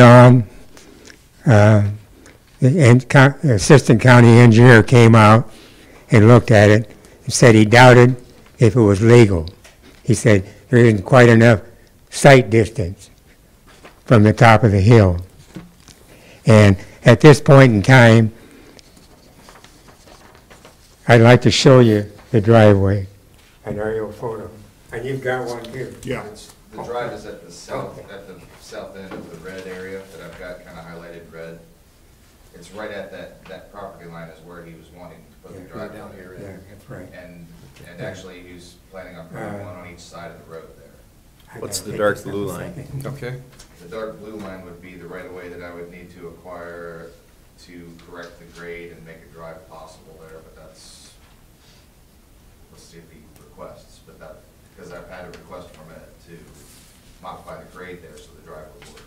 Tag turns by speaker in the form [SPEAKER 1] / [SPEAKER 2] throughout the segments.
[SPEAKER 1] on. um, Uh, The en- co- assistant county engineer came out and looked at it and said he doubted if it was legal. He said there isn't quite enough sight distance from the top of the hill. And at this point in time, I'd like to show you the driveway. An aerial photo. And you've got one here.
[SPEAKER 2] Yeah,
[SPEAKER 3] The drive is at the south, at the south end of the red area that I've got kind of highlighted red. It's right at that, that property line is where he was wanting to put the drive down here.
[SPEAKER 1] Yeah, that's right.
[SPEAKER 3] And, and actually, he's planning on putting one on each side of the road there.
[SPEAKER 4] What's the dark blue line?
[SPEAKER 5] Okay.
[SPEAKER 3] The dark blue line would be the right of way that I would need to acquire to correct the grade and make a drive possible there, but that's, let's see if he requests, but that, because I've had a request from it to modify the grade there so the drive would work.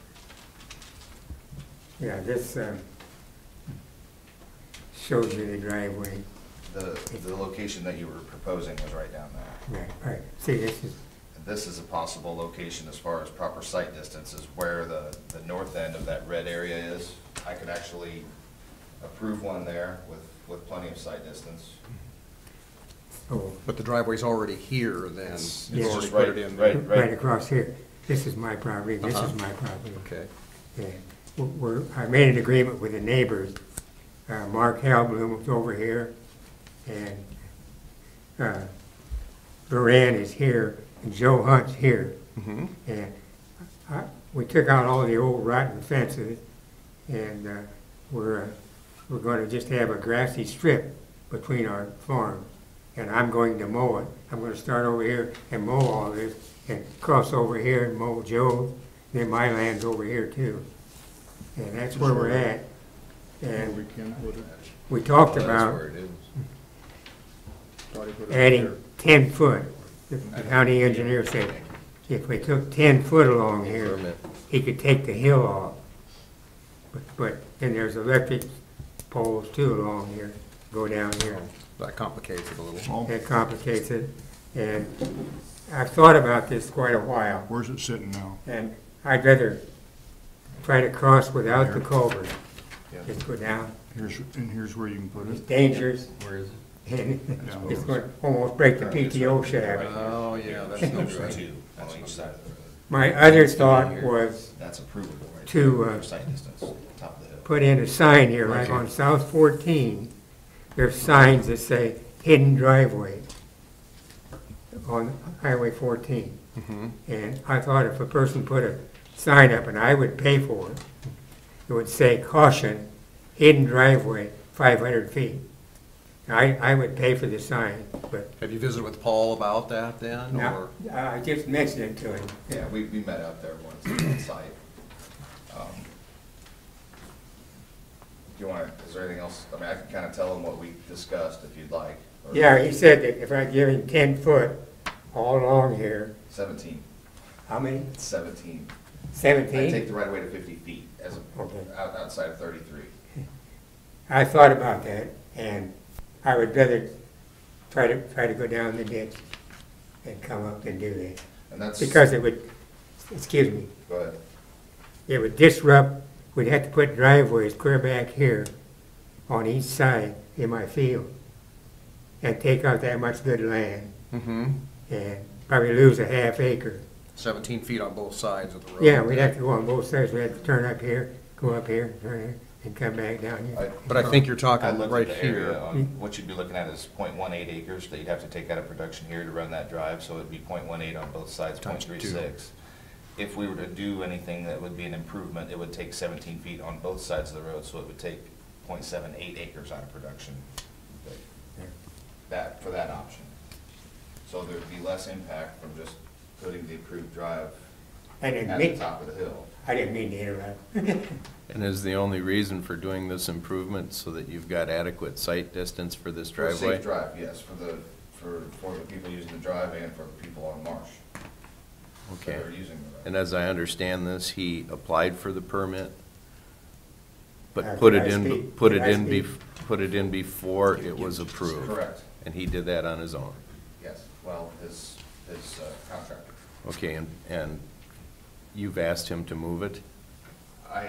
[SPEAKER 1] Yeah, this um, shows you the driveway.
[SPEAKER 3] The, the location that you were proposing was right down there.
[SPEAKER 1] Right, right. See, this is,
[SPEAKER 3] This is a possible location as far as proper site distance is where the, the north end of that red area is. I could actually approve one there with, with plenty of site distance.
[SPEAKER 1] oh,
[SPEAKER 5] But the driveway's already here then?
[SPEAKER 3] It's
[SPEAKER 1] it's
[SPEAKER 3] just
[SPEAKER 5] already
[SPEAKER 3] right-
[SPEAKER 5] put in.
[SPEAKER 3] right-
[SPEAKER 1] right across here. This is my property, this is
[SPEAKER 5] Uh-huh.
[SPEAKER 1] my property.
[SPEAKER 5] Okay.
[SPEAKER 1] Yeah. We're- We're, I made an agreement with the neighbors. Uh, Mark Halblum was over here, and uh, Baran is here, and Joe Hunt's here. And I, Uh, we took out all the old rotten fences, and uh, we're, uh, we're gonna just have a grassy strip between our farms. And I'm going to mow it. I'm gonna start over here and mow all this, and cross over here and mow Joe, then my land's over here too. And that's where we're at.
[SPEAKER 2] and we
[SPEAKER 1] And
[SPEAKER 2] can put it,
[SPEAKER 1] we talked
[SPEAKER 3] That's
[SPEAKER 1] about
[SPEAKER 3] where it is.
[SPEAKER 2] try to put it
[SPEAKER 1] adding
[SPEAKER 2] there.
[SPEAKER 1] ten foot. The county engineer said, if we took ten foot along here, he could take the hill off. But- But, then there's electric poles too along here, go down here.
[SPEAKER 5] That complicates it a little.
[SPEAKER 2] Oh,
[SPEAKER 1] That complicates it. And I've thought about this quite a while,
[SPEAKER 2] Where's it sitting now?
[SPEAKER 1] and I'd rather try to cross without the culvert. Just go down,
[SPEAKER 2] Here's, and here's where you can put
[SPEAKER 1] it's
[SPEAKER 2] it.
[SPEAKER 1] dangerous,
[SPEAKER 5] Where is it?
[SPEAKER 1] and it's gonna almost break the PTO shaft.
[SPEAKER 5] Oh, yeah, that's no
[SPEAKER 3] There's
[SPEAKER 5] good.
[SPEAKER 3] two on each side of the road.
[SPEAKER 1] My other thought was
[SPEAKER 3] That's approvable right there.
[SPEAKER 1] to, uh,
[SPEAKER 3] Site distance, top of the hill.
[SPEAKER 1] put in a sign here, like on South 14, there's signs that say hidden driveway on Highway 14. And I thought if a person put a sign up, and I would pay for it, it would say caution, hidden driveway, 500 feet. I, I would pay for the sign, but
[SPEAKER 5] Have you visited with Paul about that then,
[SPEAKER 1] now,
[SPEAKER 5] or?
[SPEAKER 1] I just mentioned it to him.
[SPEAKER 3] Yeah, we, we met out there once on site. Um, Do you want, is there anything else? I mean, I can kind of tell them what we discussed if you'd like. or
[SPEAKER 1] Yeah, he said that if I give him 10 foot all along here,
[SPEAKER 3] Seventeen,
[SPEAKER 1] how many?
[SPEAKER 3] it's seventeen. I
[SPEAKER 1] 17?
[SPEAKER 3] take the right away to fifty feet as, a-
[SPEAKER 1] Okay.
[SPEAKER 3] out- outside of thirty-three.
[SPEAKER 1] I thought about that, and I would rather try to, try to go down the ditch and come up and do that,
[SPEAKER 3] And that's, go
[SPEAKER 1] because it would, excuse me,
[SPEAKER 3] ahead.
[SPEAKER 1] it would disrupt, we'd have to put driveways clear back here on each side in my field, and take out that much good land,
[SPEAKER 5] Mm-hmm.
[SPEAKER 1] and probably lose a half acre.
[SPEAKER 5] Seventeen feet on both sides of the road.
[SPEAKER 1] Yeah, we'd have to go on both sides, we'd have to turn up here, go up here, turn here, and come back down here.
[SPEAKER 5] But I think you're
[SPEAKER 3] I
[SPEAKER 5] talking
[SPEAKER 3] looked at
[SPEAKER 5] right
[SPEAKER 3] the area
[SPEAKER 5] here.
[SPEAKER 3] on, what you'd be looking at is 0.18 acres that you'd have to take out of production here to run that drive, so it'd be 0.18 on both sides, 0.36.
[SPEAKER 5] Times two.
[SPEAKER 3] If we were to do anything that would be an improvement, it would take seventeen feet on both sides of the road, so it would take 0.78 acres out of production. That, for that option. So there'd be less impact from just putting the approved drive
[SPEAKER 1] I didn't
[SPEAKER 3] at the
[SPEAKER 1] mean,
[SPEAKER 3] top of the hill.
[SPEAKER 1] I didn't mean to interrupt.
[SPEAKER 4] And is the only reason for doing this improvement so that you've got adequate sight distance for this
[SPEAKER 3] For a
[SPEAKER 4] driveway?
[SPEAKER 3] Safe drive, yes, for the, for, for the people using the drive and for people on Marsh
[SPEAKER 4] Okay.
[SPEAKER 3] that are using the road.
[SPEAKER 4] And as I understand this, he applied for the permit, but put it
[SPEAKER 1] Did I
[SPEAKER 4] in,
[SPEAKER 1] speak?
[SPEAKER 4] put it
[SPEAKER 1] Did I
[SPEAKER 4] in, bef-
[SPEAKER 1] speak?
[SPEAKER 4] put it in before it was approved.
[SPEAKER 3] Correct,
[SPEAKER 4] And he did that on his own.
[SPEAKER 3] yes, well, his, his uh, contractor.
[SPEAKER 4] Okay, and, and you've asked him to move it?